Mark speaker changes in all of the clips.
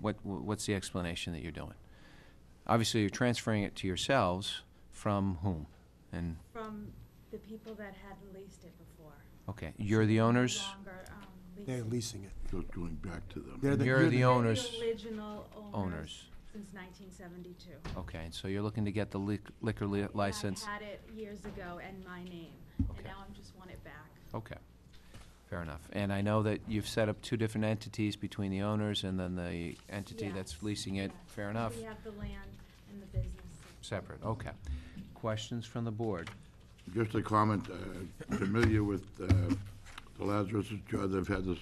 Speaker 1: what, what's the explanation that you're doing? Obviously, you're transferring it to yourselves from whom? And,
Speaker 2: From the people that had leased it before.
Speaker 1: okay, you're the owners?
Speaker 2: No longer, um, leasing.
Speaker 3: They're leasing it.
Speaker 4: Not going back to them.
Speaker 3: They're the-
Speaker 1: You're the owners,
Speaker 2: They're the original owners
Speaker 1: owners.
Speaker 2: since nineteen seventy-two.
Speaker 1: okay, and so you're looking to get the lic- liquor li- license?
Speaker 2: I had it years ago and my name, and
Speaker 1: Okay. Oh,
Speaker 2: now I just want it back.
Speaker 1: Okay, fair enough. And I know that you've set up two different entities between the owners and then the entity that's
Speaker 2: Yes,
Speaker 1: leasing it,
Speaker 2: yes.
Speaker 1: fair enough?
Speaker 2: We have the land and the business.
Speaker 1: Separate, okay. Questions from the board?
Speaker 4: Just a comment, uh, familiar with uh, the Lazarus Jar, they've had this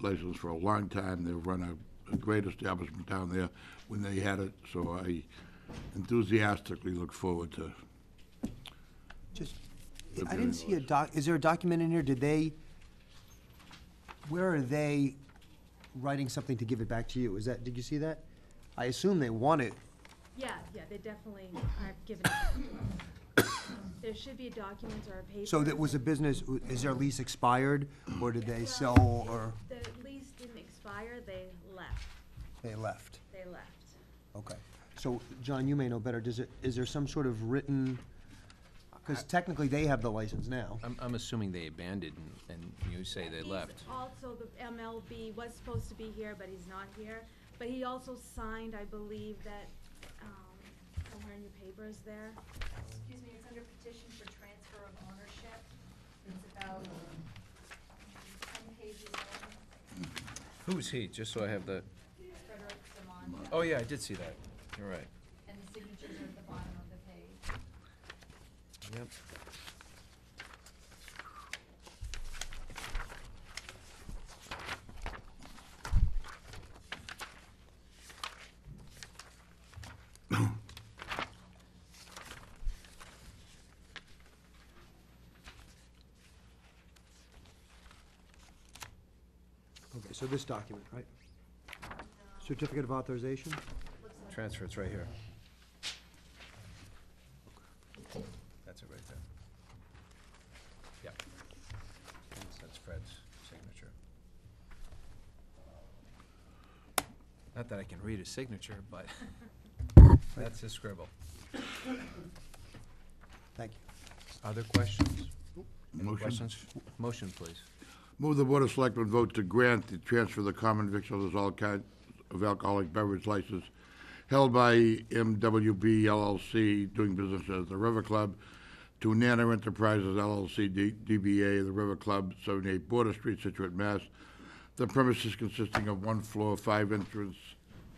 Speaker 4: license for a long time. They've run a- a great establishment down there when they had it, so I enthusiastically look forward to,
Speaker 3: Just,
Speaker 4: They're
Speaker 3: I didn't
Speaker 4: doing
Speaker 3: see a
Speaker 4: those.
Speaker 3: doc, is there a document in here? Did they, where are they writing something to give it back to you? Is that, did you see that? I assume they want it.
Speaker 2: Yeah, yeah, they definitely are giving it. There should be a document or a paper.
Speaker 3: So that was a business, is their lease expired, or did they sell, or
Speaker 2: The lease didn't expire, they left,
Speaker 3: they left?
Speaker 2: they left.
Speaker 3: Okay. So, John, you may know better. Does it, is there some sort of written, because technically they have the license now.
Speaker 1: I'm, I'm assuming they abandoned and and you say they
Speaker 2: He's
Speaker 1: left.
Speaker 2: Also, the MLB was supposed to be here, but he's not here. But he also signed, I believe, that, um, somewhere in your papers there.
Speaker 5: Excuse me, it's under petition for transfer of ownership. It's about um, ten pages long,
Speaker 1: Who's he, just so I have the,
Speaker 5: Frederick Simon,
Speaker 1: oh yeah, I did see that, you're right.
Speaker 5: and the signatures are at the bottom of the page.
Speaker 1: Yep.
Speaker 3: Okay, so this document, right? Certificate of authorization?
Speaker 1: Transfer, it's right here. That's it right there. Yep. That's- That's Fred's signature. Not that I can read his signature, but that's his scribble.
Speaker 3: Thank you.
Speaker 1: Other questions? Any
Speaker 4: Motion.
Speaker 1: Questions? Motion, please.
Speaker 4: move the Board of Selectmen vote to grant the transfer of the common victuals all kinds of alcoholic beverage license held by MWB LLC, doing business as the River Club, to Nana Enterprises LLC, D- DBA, The River Club, 78 Border Street, Situate, Mass. The premises consisting of one floor, five entrance,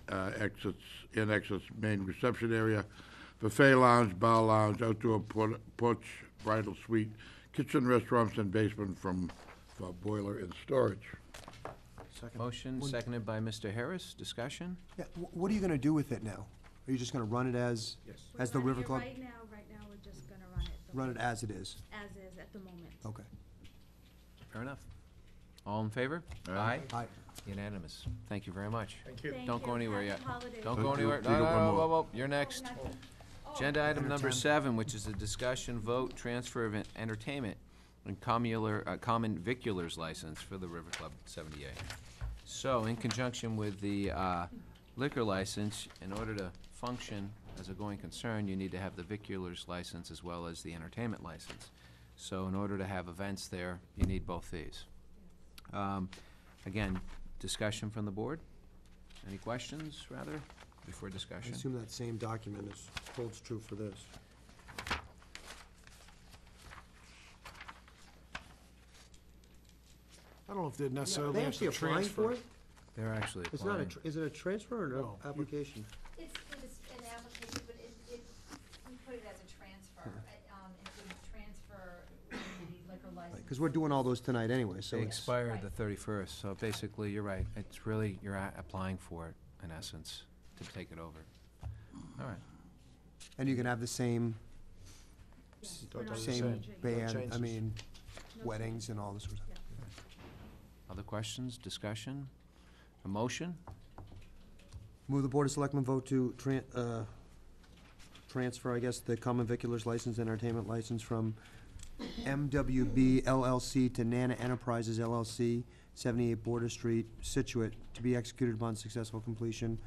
Speaker 4: uh, exits, and exits, main reception area, buffet lounge, bar lounge, outdoor por- porch, bridal suite, kitchen, restaurants, and basement from, for boiler and storage.
Speaker 1: Motion seconded by Mr. Harris. Discussion?
Speaker 3: Yeah, wh- what are you gonna do with it now? Are you just gonna run it as,
Speaker 2: We're
Speaker 3: as the
Speaker 2: running
Speaker 3: River
Speaker 2: it
Speaker 3: Club?
Speaker 2: Right now, right now, we're just gonna run it. the
Speaker 3: Run it Oh.
Speaker 2: way-
Speaker 3: as it is?
Speaker 2: As is at the moment.
Speaker 3: Okay.
Speaker 1: Fair enough. All in favor?
Speaker 4: Aye.
Speaker 3: Aye.
Speaker 1: Unanimous. Thank you very much.
Speaker 2: Thank you.
Speaker 1: Don't go anywhere yet.
Speaker 2: Happy holidays.
Speaker 1: Don't
Speaker 4: Don't
Speaker 1: go
Speaker 4: do-
Speaker 1: anywhere.
Speaker 4: do
Speaker 1: No, no,
Speaker 4: the one
Speaker 1: no,
Speaker 4: more.
Speaker 1: whoa, whoa, you're
Speaker 2: Oh,
Speaker 1: next. Agenda item number seven, which is a discussion vote, transfer of en- entertainment and commular, uh, common viculars license for the River Club seventy-eight. So in conjunction with the, uh, liquor license, in order to function as a going concern, you need to have the viculars license as well as the entertainment license. So in order to have events there, you need both these. Um, Again, discussion from the board? Any questions, rather, before
Speaker 3: I
Speaker 1: discussion?
Speaker 3: assume that same document is, holds true for this.
Speaker 6: I don't know if they're necessarily
Speaker 3: They
Speaker 6: have
Speaker 3: actually
Speaker 6: to
Speaker 3: applying for
Speaker 6: transfer.
Speaker 3: it?
Speaker 1: They're actually
Speaker 3: It's not a,
Speaker 1: applying.
Speaker 3: tr- is it a transfer or an
Speaker 6: No.
Speaker 3: application?
Speaker 5: It's, it's an application, but it, it, we put it as a transfer, I- um, and we transfer the liquor license.
Speaker 3: Because we're doing all those tonight anyway, so
Speaker 1: They
Speaker 3: it's,
Speaker 1: expire the
Speaker 5: Right.
Speaker 1: thirty-first, so basically, you're right, it's really, you're a- applying for it, in essence, to take it over. All right,
Speaker 3: and you can have the same,
Speaker 2: Yes,
Speaker 3: s-
Speaker 2: we're not
Speaker 3: same
Speaker 2: changing it.
Speaker 3: band, I
Speaker 6: changes.
Speaker 3: mean,
Speaker 2: No
Speaker 3: weddings and all this sort of stuff.
Speaker 1: other questions, discussion, a motion?
Speaker 3: Move the Board of Selectmen vote to tran, uh, transfer, I guess, the common viculars license, entertainment license from MWB LLC to Nana Enterprises LLC, seventy-eight Border Street, Situate, to be executed upon successful completion